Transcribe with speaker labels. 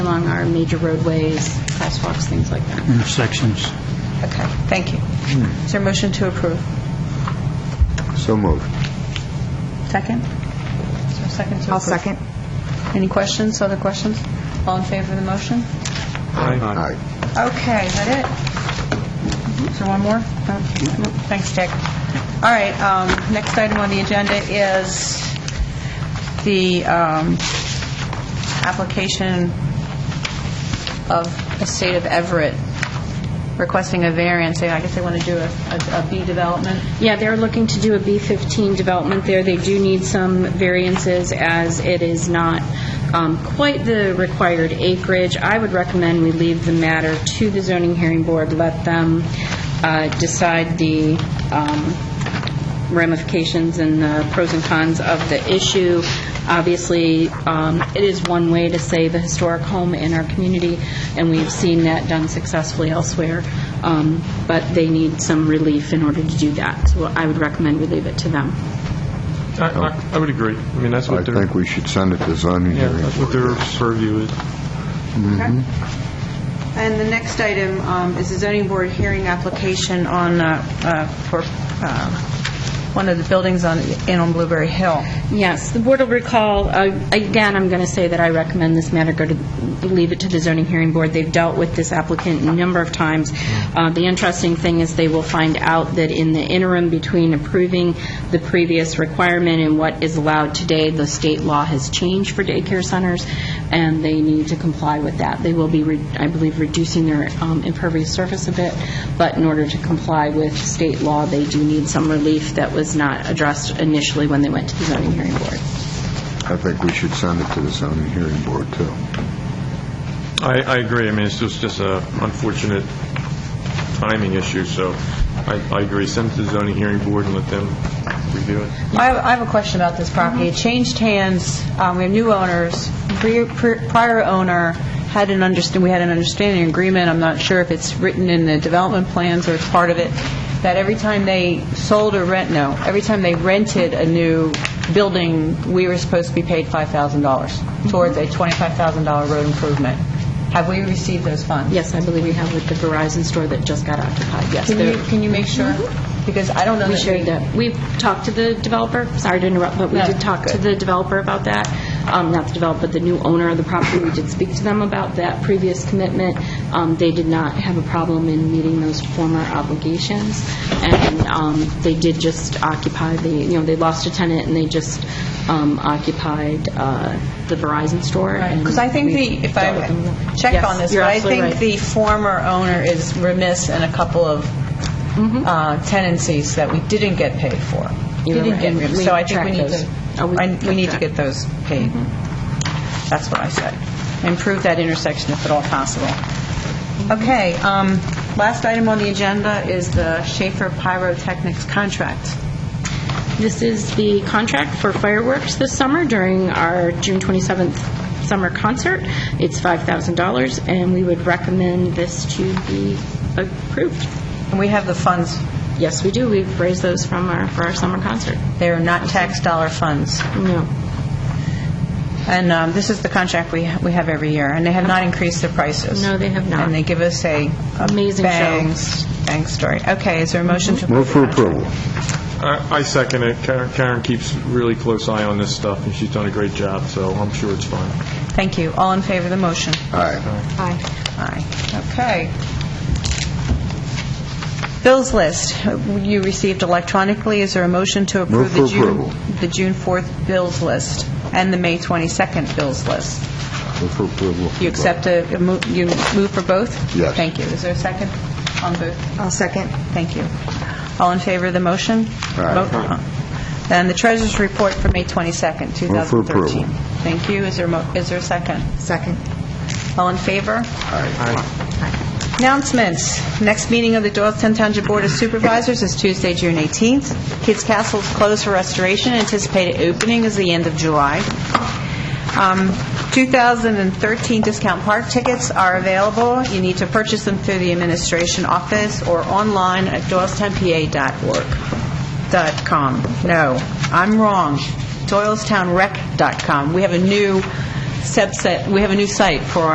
Speaker 1: along our major roadways, crosswalks, things like that.
Speaker 2: intersections.
Speaker 3: Okay, thank you. Is there a motion to approve?
Speaker 4: So moved.
Speaker 3: Second? Is there a second to approve? I'll second. Any questions, other questions? All in favor of the motion?
Speaker 4: Aye.
Speaker 3: Okay, is that it? Is there one more? No? No. Thanks, Dick. All right, um, next item on the agenda is the um, application of the state of Everett requesting a variance. They- I guess they want to do a- a a B development.
Speaker 1: Yeah, they're looking to do a B-15 development there. They do need some variances as it is not um, quite the required acreage. I would recommend we leave the matter to the zoning hearing board, let them uh, decide the um, ramifications and the pros and cons of the issue. Obviously, um, it is one way to save a historic home in our community, and we've seen that done successfully elsewhere, Um, but they need some relief in order to do that, so I would recommend we leave it to them.
Speaker 5: I- I I would agree. I mean, that's
Speaker 4: I
Speaker 5: what their,
Speaker 4: think we should send it to zoning
Speaker 5: yeah,
Speaker 4: hearing.
Speaker 5: that's what their purview is.
Speaker 3: And the next item um, is a zoning board hearing application on, uh, uh, for uh, one of the buildings on, in on Blueberry Hill.
Speaker 1: Yes, the board will recall, uh, again, I'm going to say that I recommend this matter go to, leave it to the zoning hearing board. They've dealt with this applicant a number of times. Uh, The interesting thing is they will find out that in the interim between approving the previous requirement and what is allowed today, the state law has changed for daycare centers, and they need to comply with that. They will be, re- I believe, reducing their um, impervious surface a bit, but in order to comply with state law, they do need some relief that was not addressed initially when they went to the zoning hearing board.
Speaker 4: I think we should send it to the zoning hearing board, too.
Speaker 5: I, I agree. I mean, it's just, just a unfortunate timing issue, so I, I agree. Send it to the zoning hearing board and let them review it.
Speaker 3: I have, I have a question about this property. It changed hands, um, we have new owners. Prior- Prior owner had an understand, we had an understanding agreement, I'm not sure if it's written in the development plans or it's part of it, that every time they sold or rent, no, every time they rented a new building, we were supposed to be paid $5,000 towards a $25,000 road improvement. Have we received those funds?
Speaker 1: Yes, I believe we have with the Verizon store that just got occupied, yes.
Speaker 3: Can
Speaker 1: they're-
Speaker 3: you, can you make sure? Because I don't know
Speaker 1: Mm-hmm.
Speaker 3: that
Speaker 1: We
Speaker 3: we...
Speaker 1: shared that. We've talked to the developer, sorry to interrupt, but we
Speaker 3: No,
Speaker 1: did talk to
Speaker 3: good.
Speaker 1: the developer about that, Um, not the developer, the new owner of the property. We did speak to them about that previous commitment. Um, They did not have a problem in meeting those former obligations, and um, they did just occupy the, you know, they lost a tenant, and they just um, occupied uh, the Verizon store. and
Speaker 3: Because I think
Speaker 1: we
Speaker 3: the, if I
Speaker 1: dealt with them.
Speaker 3: check
Speaker 1: Yes,
Speaker 3: on this,
Speaker 1: you're
Speaker 3: but I
Speaker 1: absolutely
Speaker 3: think
Speaker 1: right.
Speaker 3: the former owner is remiss in a couple of
Speaker 1: Mm-hmm.
Speaker 3: uh, tenancies that we didn't get paid for.
Speaker 1: You're
Speaker 3: Didn't
Speaker 1: right.
Speaker 3: get rem-
Speaker 1: We
Speaker 3: So I think we
Speaker 1: tracked
Speaker 3: need
Speaker 1: those.
Speaker 3: to,
Speaker 1: Oh, we Mm-hmm.
Speaker 3: I- we
Speaker 1: kept
Speaker 3: need to
Speaker 1: track.
Speaker 3: get those paid. That's what I said. Improve that intersection if at all possible.
Speaker 1: Mm-hmm.
Speaker 3: Okay, um, last item on the agenda is the Schaefer Pyrotechnics contract.
Speaker 1: This is the contract for fireworks this summer during our June 27th summer concert. It's $5,000, and we would recommend this to be approved.
Speaker 3: And we have the funds,
Speaker 1: Yes, we do. We've raised those from our, for our summer concert.
Speaker 3: they're not tax dollar funds.
Speaker 1: No.
Speaker 3: And um, this is the contract we we have every year, and they have not increased their prices.
Speaker 1: No, they have not.
Speaker 3: And they give us a a
Speaker 1: Amazing show.
Speaker 3: bang, s- bang story. Okay, is there a motion to...
Speaker 4: Move for approval.
Speaker 5: I, I second it. Karen Karen keeps really close eye on this stuff, and she's done a great job, so I'm sure it's fine.
Speaker 3: Thank you. All in favor of the motion?
Speaker 4: Aye.
Speaker 1: Aye.
Speaker 3: Aye. Okay. Bills list, you received electronically. Is there a motion to approve the
Speaker 4: Move for
Speaker 3: June...
Speaker 4: approval.
Speaker 3: The June 4th bills list and the May 22nd bills list?
Speaker 4: Move for approval.
Speaker 3: You accept a, a mo- you move for both?
Speaker 4: Yes.
Speaker 3: Thank you. Is there a second on both? I'll second. Thank you. All in favor of the motion?
Speaker 4: Aye.
Speaker 3: Vote. And the treasurer's report for May 22nd, 2013.
Speaker 4: for approval.
Speaker 3: Thank you. Is there, mo- is there a second? Second. All in favor?
Speaker 4: Aye.
Speaker 3: Announcements. Next meeting of the Doylestown Township Board of Supervisors is Tuesday, June 18th. Kids Castle is closed for restoration. Anticipated opening is the end of July. Um, 2013 discount park tickets are available. You need to purchase them through the administration office or online at doylestownpa.org. Dot .com. No, I'm wrong. Doylestownrec.com. We have a new subset, we have a new site for our